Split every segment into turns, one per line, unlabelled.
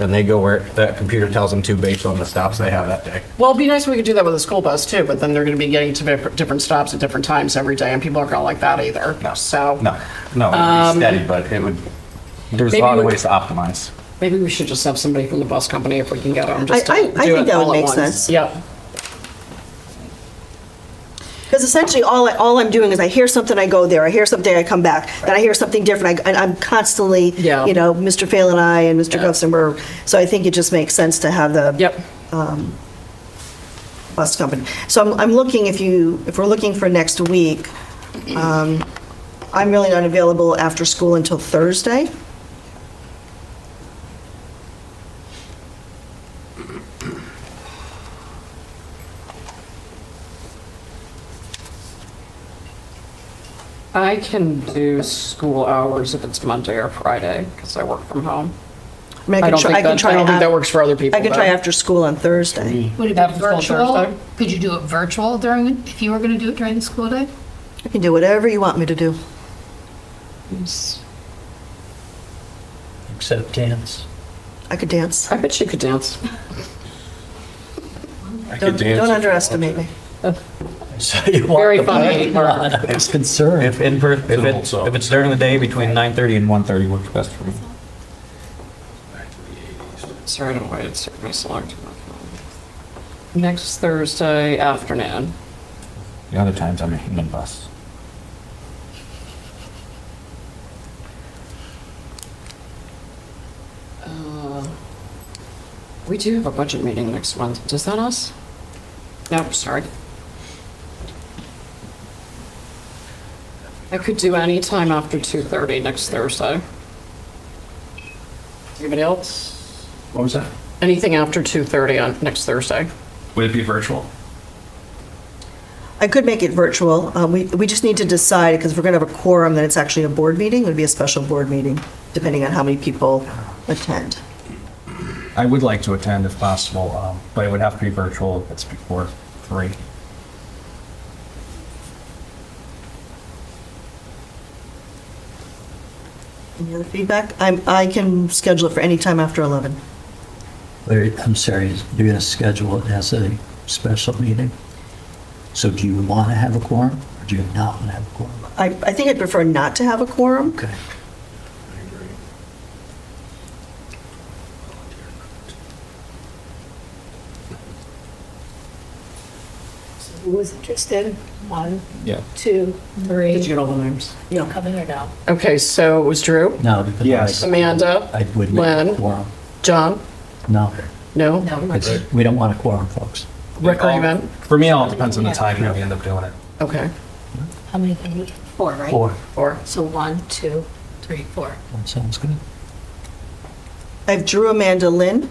And they go where that computer tells them to based on the stops they have that day.
Well, it'd be nice if we could do that with a school bus too, but then they're going to be getting to different- different stops at different times every day, and people aren't going to like that either. So
No, no, it'd be steady, but it would, there's a
Um, maybe
lot of
we-
ways to optimize.
maybe we should just have somebody from the bus company if we can get them. just to
I- I- I
do
think
it
that would
all at
make
once.
sense.
Yep.
Because essentially, all, I- all I'm doing is I hear something, I go there, I hear something, I come back, then I hear something different, I- and I'm constantly,
Yeah.
you know, Mr. Phelan and I and Mr.
Yeah.
Guston were, so I think it just makes sense to have the
Yep.
bus company. So I'm, I'm looking, if you, if we're looking for next week, um, I'm really not available after school until Thursday.
I can do school hours if it's Monday or Friday because I work from home.
mean,
I
can
don't
try-
think
can
that-
try
I don't think
af-
that works for other people,
I can try
though.
after school on Thursday.
Would it
That
be
was called Thursday?
virtual? Could you do it virtual during, if you were going to do it during the school day?
I can do whatever you want me to do.
Except dance.
I could dance.
I bet you could dance.
Don't don't underestimate me.
Very funny. Mark.
I was concerned.
If in, per- if it's,
So-
if it's during the day between 9:30 and 1:30 works best for me.
Sorry, I don't know why it's taking me so long to. Next Thursday afternoon.
The other times I'm a human bus.
Uh, We do have a budget meeting next month. Does that us? No, sorry. I could do any time after 2:30 next Thursday. Anybody else?
What was that?
Anything after 2:30 on next Thursday?
Would it be virtual?
I could make it virtual. Uh, We, we just need to decide, because if we're going to have a quorum, then it's actually a board meeting. It would be a special board meeting, depending on how many people attend.
I would like to attend if possible, um, but it would have to be virtual if it's before three.
Any other feedback? I'm, I can schedule it for any time after 11.
Larry, I'm sorry, you're going to schedule it as a special meeting? So do you want to have a quorum or do you not want to have a quorum?
I, I think I'd prefer not to have a quorum.
Okay.
Who was interested? One,
Yeah.
two,
Did you
three.
get all the names?
You coming or no?
Okay, so it was Drew,
No, because
Yes.
I- I
Amanda,
wouldn't have
Lynn?
a quorum.
John?
No,
No?
No.
it's- we don't want a quorum, folks.
Rick, are you in?
For me, it all depends on the time that we end up doing it.
Okay,
How many can we, four, right?
Four,
or,
So one, two, three, four.
that sounds good.
I have Drew, Amanda, Lynn.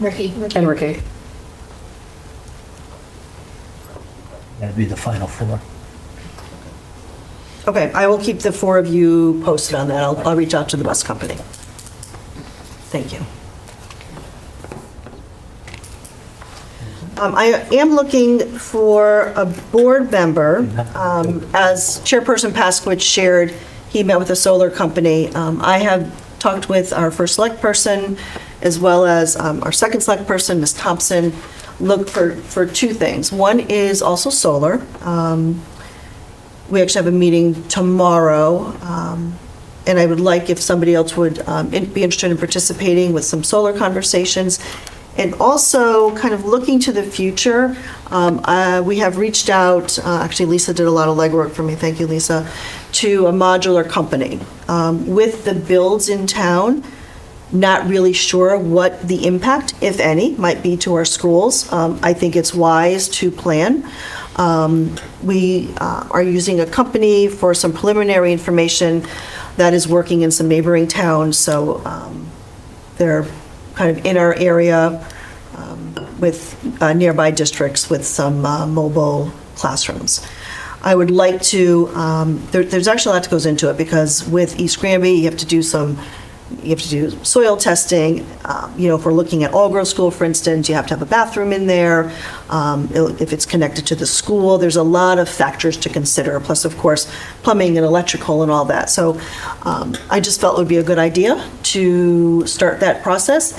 Ricky?
and Ricky?
That'd be the final four.
Okay, I will keep the four of you posted on that. I'll, I'll reach out to the bus company. Thank you. Um, I am looking for a board member. Um, As Chairperson Pasquich shared, he met with a solar company. Um, I have talked with our first select person, as well as um, our second select person, Ms. Thompson, look for, for two things. One is also solar. Um, we actually have a meeting tomorrow, um, and I would like if somebody else would um, in- be interested in participating with some solar conversations. And also, kind of looking to the future, um, uh, we have reached out, uh, actually Lisa did a lot of legwork for me, thank you, Lisa, to a modular company. Um, With the builds in town, not really sure what the impact, if any, might be to our schools. Um, I think it's wise to plan. Um, We uh, are using a company for some preliminary information that is working in some neighboring towns, so um, they're kind of in our area um, with uh, nearby districts with some uh, mobile classrooms. I would like to, um, there- there's actually a lot that goes into it, because with East Granby, you have to do some you have to do soil testing. Um, You know, if we're looking at All Grove School, for instance, you have to have a bathroom in there. Um, it- If it's connected to the school, there's a lot of factors to consider, plus, of course, plumbing and electrical and all that. So um, I just felt it would be a good idea to start that process